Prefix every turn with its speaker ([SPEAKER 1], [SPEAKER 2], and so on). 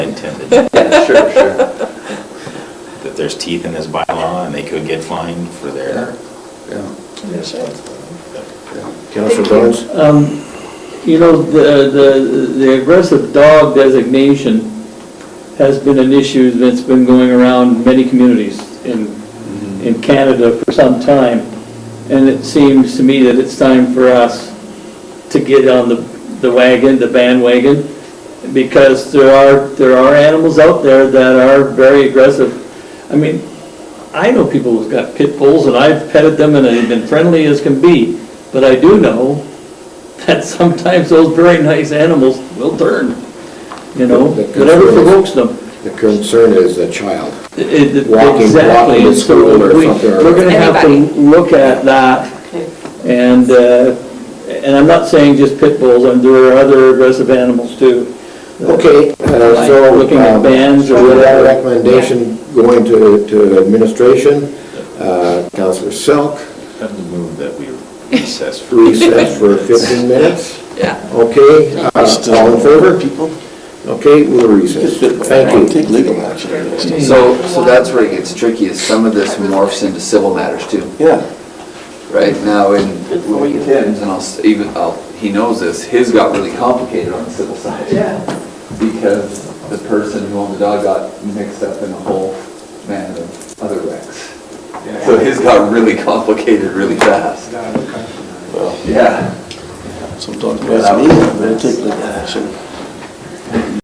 [SPEAKER 1] intended,
[SPEAKER 2] Sure, sure,
[SPEAKER 1] that there's teeth in this bylaw and they could get fined for their.
[SPEAKER 2] yeah,
[SPEAKER 3] Yes.
[SPEAKER 2] yeah. Councilor Bowles?
[SPEAKER 4] Um, You know, the, the the aggressive dog designation has been an issue that's been going around in many communities in, in Canada for some time. And it seems to me that it's time for us to get on the the wagon, the bandwagon, because there are, there are animals out there that are very aggressive. I mean, I know people who've got pit bulls, and I've petted them, and they've been friendly as can be, but I do know that sometimes those very nice animals will turn, you know,
[SPEAKER 5] That- that
[SPEAKER 4] whatever
[SPEAKER 5] concerns-
[SPEAKER 4] provokes them.
[SPEAKER 5] The concern is the child.
[SPEAKER 4] It- it-
[SPEAKER 5] Walking-
[SPEAKER 4] Exactly,
[SPEAKER 5] walking to
[SPEAKER 4] and so
[SPEAKER 5] school or
[SPEAKER 4] we-
[SPEAKER 5] something, or-
[SPEAKER 4] We're gonna have to
[SPEAKER 6] Anybody.
[SPEAKER 4] look at that, and, uh, and I'm not saying just pit bulls, and there are other aggressive animals too.
[SPEAKER 5] Okay, uh,
[SPEAKER 4] Like
[SPEAKER 5] so.
[SPEAKER 4] looking at
[SPEAKER 5] um,
[SPEAKER 4] bands or
[SPEAKER 5] with that
[SPEAKER 4] whatever.
[SPEAKER 5] Recommendation going to, to administration, uh, Counselor Selk,
[SPEAKER 1] Have to move that we recess for.
[SPEAKER 5] recess for fifteen minutes.
[SPEAKER 6] Yeah.
[SPEAKER 5] Okay, uh, all in favor?
[SPEAKER 2] People?
[SPEAKER 5] Okay, we'll recess. Thank you.
[SPEAKER 2] Take legal action.
[SPEAKER 7] So, so that's where it gets tricky, is some of this morphs into civil matters too,
[SPEAKER 2] Yeah.
[SPEAKER 7] right? Now, in
[SPEAKER 2] Good for you.
[SPEAKER 7] and I'll, s- even, I'll, he knows this, his got really complicated on the civil side. Yeah. Because the person who owned the dog got mixed up in a whole man of other wrecks. So his got really complicated really fast. Yeah.
[SPEAKER 2] Sometimes that's me, but I take legal action.